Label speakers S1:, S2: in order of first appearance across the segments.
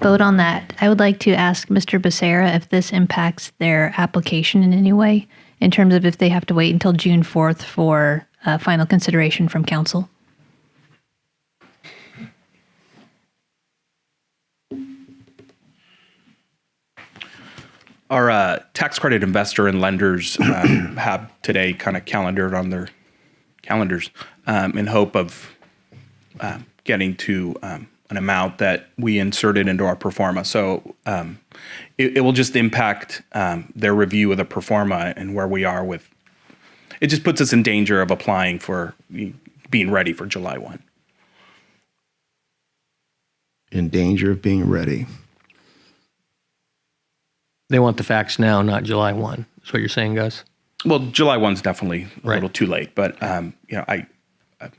S1: vote on that, I would like to ask Mr. Becerra if this impacts their application in any way, in terms of if they have to wait until June 4th for uh, final consideration from council.
S2: Our uh, tax credit investor and lenders um, have today kind of calendared on their calendars um, in hope of um, getting to um, an amount that we inserted into our performa. So um, it, it will just impact um, their review of the performa and where we are with. It just puts us in danger of applying for being ready for July one.
S3: in danger of being ready.
S4: They want the facts now, not July 1. Is what you're saying, Gus?
S2: Well, July one's definitely a
S4: Right.
S2: little too late, but um, you know, I, I,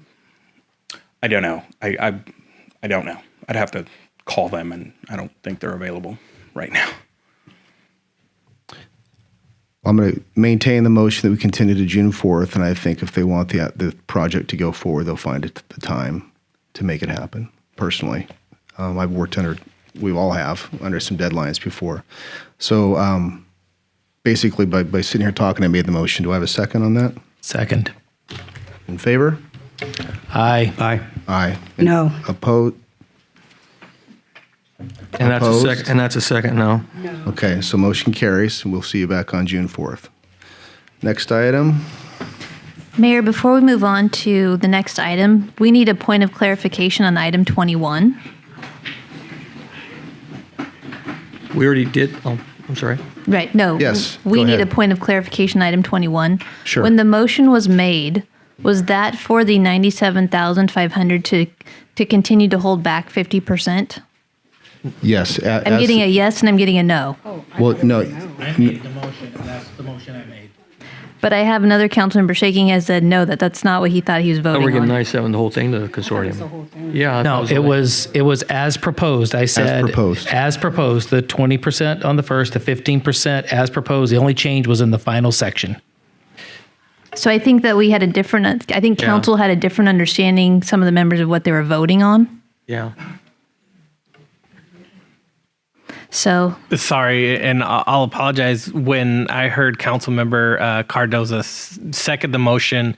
S2: I don't know. I, I, I don't know. I'd have to call them, and I don't think they're available right now.
S3: I'm going to maintain the motion that we continue to June 4th, and I think if they want the the project to go forward, they'll find it the time to make it happen. Personally, um, I've worked under we all have under some deadlines before, so um, basically by by sitting here talking, I made the motion. Do I have a second on that?
S5: Second.
S3: In favor?
S5: Aye. Aye.
S3: Aye.
S6: No.
S3: Opposed?
S4: And that's a
S3: Opposed?
S4: second. And that's a second no.
S3: Okay, so motion carries, and we'll see you back on June 4th. Next item.
S1: Mayor, before we move on to the next item, we need a point of clarification on item 21.
S4: We already did. Oh, I'm sorry.
S1: Right, no.
S3: Yes,
S1: We
S3: go
S1: need a
S3: ahead.
S1: point of clarification, item 21.
S3: Sure.
S1: When the motion was made, was that for the 97,500 to, to continue to hold back 50%?
S3: Yes. a-
S1: I'm
S3: as-
S1: getting a yes and I'm getting a no.
S3: Well, no,
S5: I made the motion, and that's the motion I made.
S1: But I have another council member shaking his head no, that that's not what he thought he was
S4: Oh,
S1: voting
S4: we're getting
S1: on.
S4: 97, the whole thing, the consortium. Yeah. I
S5: No,
S4: thought
S5: it
S4: only-
S5: was, it was as proposed. I said.
S3: proposed.
S5: As proposed, the 20% on the first, the 15% as proposed. The only change was in the final section.
S1: So I think that we had a different, I think
S4: Yeah.
S1: council had a different understanding, some of the members of what they were voting on.
S4: Yeah.
S1: So
S7: Sorry, and I- I'll apologize. When I heard Councilmember uh, Cardoza s- second the motion,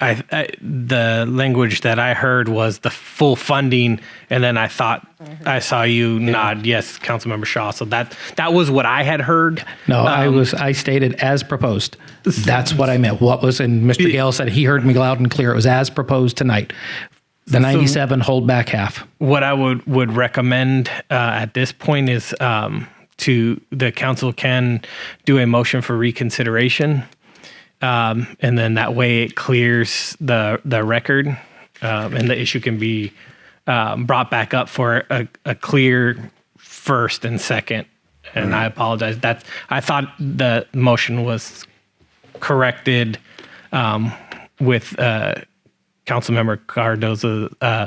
S7: I, I the language that I heard was the full funding, and then I thought I saw you nod yes, Councilmember Shaw. So that that was what I had heard. Um,
S5: No, I was, I stated as proposed. That's what I meant. What was, and Mr. Gale said he heard me loud and clear. It was as proposed tonight. The 97 hold back half.
S7: what I would would recommend uh, at this point is um, to the council can do a motion for reconsideration, um, and then that way it clears the the record, um, and the issue can be um, brought back up for a, a clear first and second. And I apologize. That's I thought the motion was corrected um, with. Uh, Councilmember Cardoza, uh,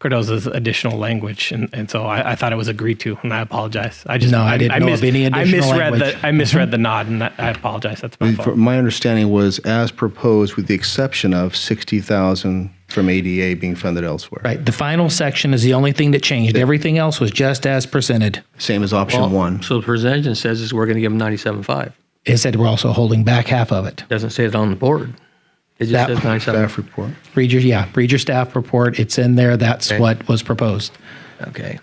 S7: Cardoza's additional language, and, and so I, I thought it was agreed to, and I apologize. I just
S5: No, I didn't know of any additional
S7: I misread
S5: language. Mm-hmm.
S7: the I misread the nod, and I, I apologize. That's my
S3: For-
S7: fault.
S3: My understanding was as proposed, with the exception of 60,000 from ADA being funded elsewhere.
S5: Right. The final section is the only thing that changed. Everything else was just as presented.
S3: Same as option one.
S4: So the presentation says is we're going to give them 97.5.
S5: It said we're also holding back half of it.
S4: Doesn't say it on the board. It just
S5: That-
S4: says 97.
S3: Staff report.
S5: Read your, yeah, read your staff report. It's in there. That's what was proposed.
S4: Okay.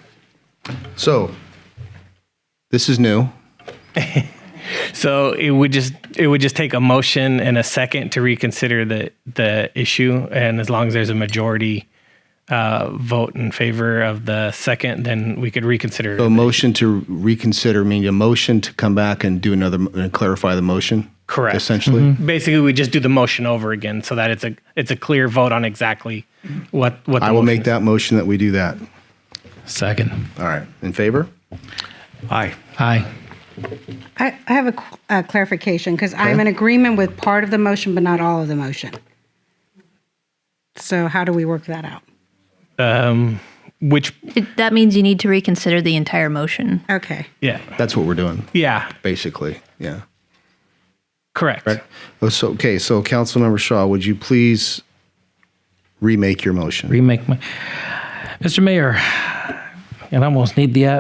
S3: So this is new.
S7: So it would just it would just take a motion and a second to reconsider the the issue, and as long as there's a majority uh, vote in favor of the second, then we could reconsider.
S3: A motion to reconsider, meaning a motion to come back and do another, and clarify the motion?
S7: Correct. Mm-hmm.
S3: Essentially?
S7: Basically, we just do the motion over again, so that it's a it's a clear vote on exactly what what. The
S3: I will
S7: motion
S3: make
S7: is.
S3: that motion that we do that.
S5: Second.
S3: All right. In favor?
S4: Aye.
S5: Aye.
S6: I, I have a qu- uh, clarification because I'm in agreement with part of the motion, but not all of the motion. So how do we work that out?
S7: um, which
S1: it- that means you need to reconsider the entire motion.
S6: Okay.
S7: yeah
S3: That's what we're doing,
S7: yeah
S3: basically. Yeah.
S7: correct
S3: Oh, So, okay, so Councilmember Shaw, would you please remake your motion?
S5: Remake my, Mr. Mayor, and I almost need the,